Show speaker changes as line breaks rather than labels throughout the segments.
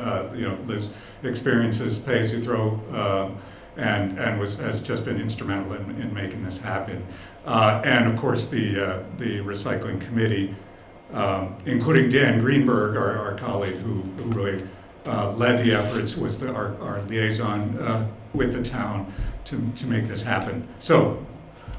uh, you know, lives experiences, pay as you throw, um, and and was has just been instrumental in, in making this happen. Uh, and of course, the uh, the recycling committee, um, including Dan Greenberg, our, our colleague who, who really uh, led the efforts, was the, our, our liaison uh, with the town to, to make this happen. So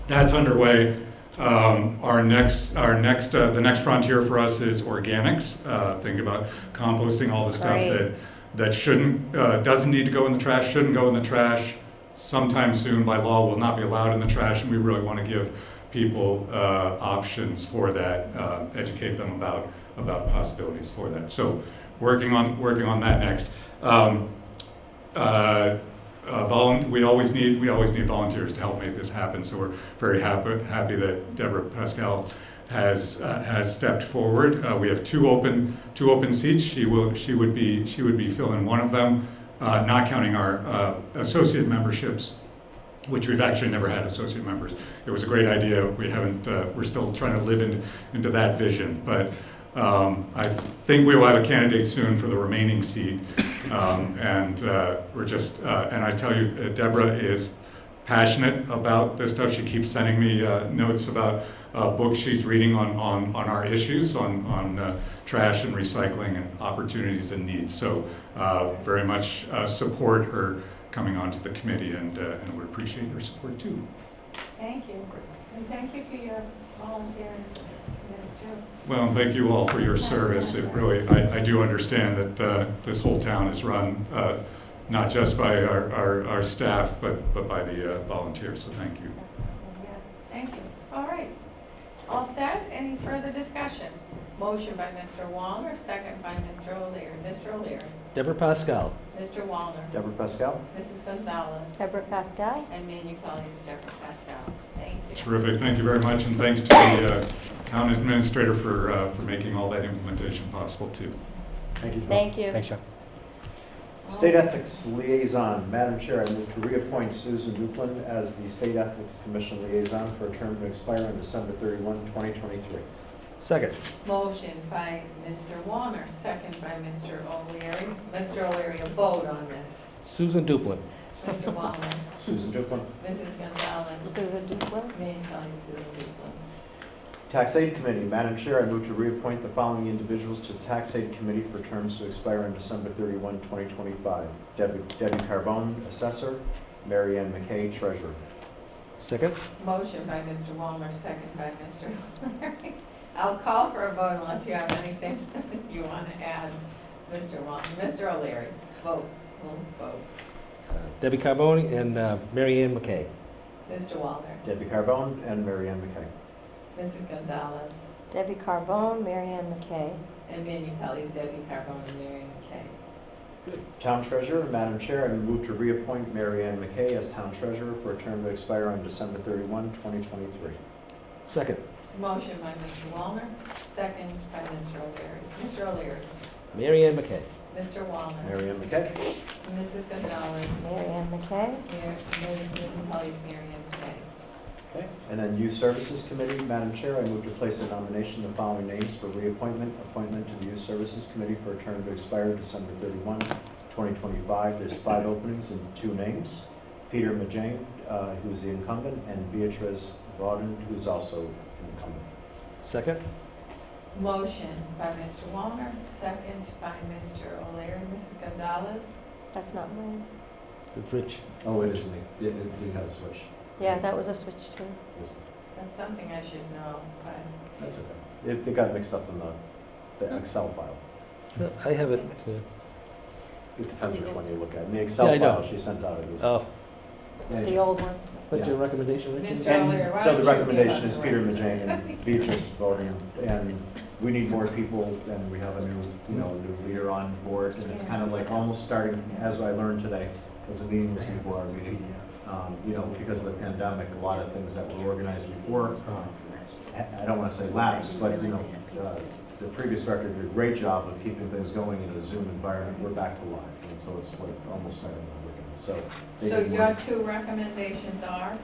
that's underway. Um, our next, our next, uh, the next frontier for us is organics. Uh, think about composting all the stuff
Right.
that that shouldn't, uh, doesn't need to go in the trash, shouldn't go in the trash. Sometime soon, by law, will not be allowed in the trash, and we really want to give people uh, options for that, uh, educate them about about possibilities for that. So, working on working on that next. Um, uh, uh, volun- we always need we always need volunteers to help make this happen. So we're very happy happy that Deborah Pascal has uh, has stepped forward. Uh, we have two open two open seats. She will she would be she would be filling one of them, uh, not counting our uh, associate memberships which we've actually never had associate members. It was a great idea. We haven't. Uh, we're still trying to live in, into that vision, but um, I think we will have a candidate soon for the remaining seat, um, and uh, we're just. Uh, and I tell you, uh, Deborah is passionate about this stuff. She keeps sending me uh, notes about uh, books she's reading on, on, on our issues, on, on uh, trash and recycling and opportunities and needs. So uh, very much uh, support her coming onto the committee and, uh, and would appreciate your support too.
Thank you, and thank you for your volunteering for this committee too.
Well, and thank you all for your service. It really, I, I do understand that uh, this whole town is run uh, not just by our, our, our staff, but, but by the uh, volunteers, so thank you.
Yes, thank you. All right. All set? Any further discussion? Motion by Mr. Walner, second by Mr. O'Leary. Mr. O'Leary,
Deborah Pascal.
Mr. Walner,
Deborah Pascal.
Mrs. Gonzalez,
Deborah Pascal?
and Manu Pelley is Deborah Pascal. Thank you.
Terrific, thank you very much, and thanks to the uh, town administrator for, uh, for making all that implementation possible too.
Thank you. John.
Thank you.
Thanks, John.
State Ethics Liaison, Madam Chair, I move to reappoint Susan Duplin as the State Ethics Commission Liaison for a term to expire on December 31, 2023.
Second.
Motion by Mr. Walner, second by Mr. O'Leary. Mr. O'Leary, a vote on this.
Susan Duplin.
Mr. Walner,
Susan Duplin.
Mrs. Gonzalez,
Susan Duplin?
Manu Pelley, Susan Duplin.
Tax Aid Committee, Madam Chair, I move to reappoint the following individuals to the Tax Aid Committee for terms to expire on December 31, 2025. Debbie Debbie Carbone, Assessor, Mary Ann McKay, Treasurer.
Second.
Motion by Mr. Walner, second by Mr. O'Leary. I'll call for a vote unless you have anything you want to add, Mr. Walner. Mr. O'Leary, vote, let's vote.
Debbie Carbone and uh, Mary Ann McKay.
Mr. Walner,
Debbie Carbone and Mary Ann McKay.
Mrs. Gonzalez,
Debbie Carbone, Mary Ann McKay.
and Manu Pelley, Debbie Carbone, and Mary McKay.
Town Treasurer, Madam Chair, I move to reappoint Mary Ann McKay as Town Treasurer for a term to expire on December 31, 2023.
Second.
Motion by Mr. Walner, second by Mr. O'Leary. Mr. O'Leary,
Mary Ann McKay.
Mr. Walner,
Mary Ann McKay?
Mrs. Gonzalez,
Mary Ann McKay?
Mary, Manu Pelley, Mary McKay.
Okay. And then Youth Services Committee, Madam Chair, I move to place a nomination of the following names for reappointment, appointment to the Youth Services Committee for a term to expire December 31, 2025. There's five openings and two names. Peter Majang, uh, who's the incumbent, and Beatrice Vauden, who's also incumbent.
Second.
Motion by Mr. Walner, second by Mr. O'Leary. Mrs. Gonzalez?
That's not mine.
It's Rich.
Oh, it is me. It, it, it has switched.
Yeah, that was a switch too.
Yes.
That's something I should know, but
That's okay. It, it got mixed up in the, the Excel file.
I have it. yeah.
It depends which one you look at. In the Excel
Yeah, I know.
file she sent out, it was.
Oh,
Yeah,
The old one.
what's your recommendation, Rich?
Mr. Earlier, why
And so
don't
the
you give
recommendation
us
is
the
Peter
reins?
Majang and Beatrice Voting, and we need more people, and we have a new, you know, a new leader on board, and it's kind of like almost starting, as I learned today, because the meeting was before our meeting, um, you know, because of the pandemic, a lot of things that were organized before, I I don't want to say lapsed, but, you know, uh, the previous director did a great job of keeping things going in a Zoom environment, we're back to live, and so it's like almost starting over again, so. they
So
need more-
your two recommendations are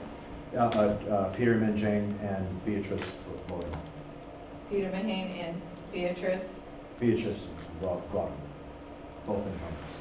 uh, uh, uh, Peter Minjane and Beatrice Voden.
Peter Mahane and Beatrice
Beatrice Voden. both incumbents.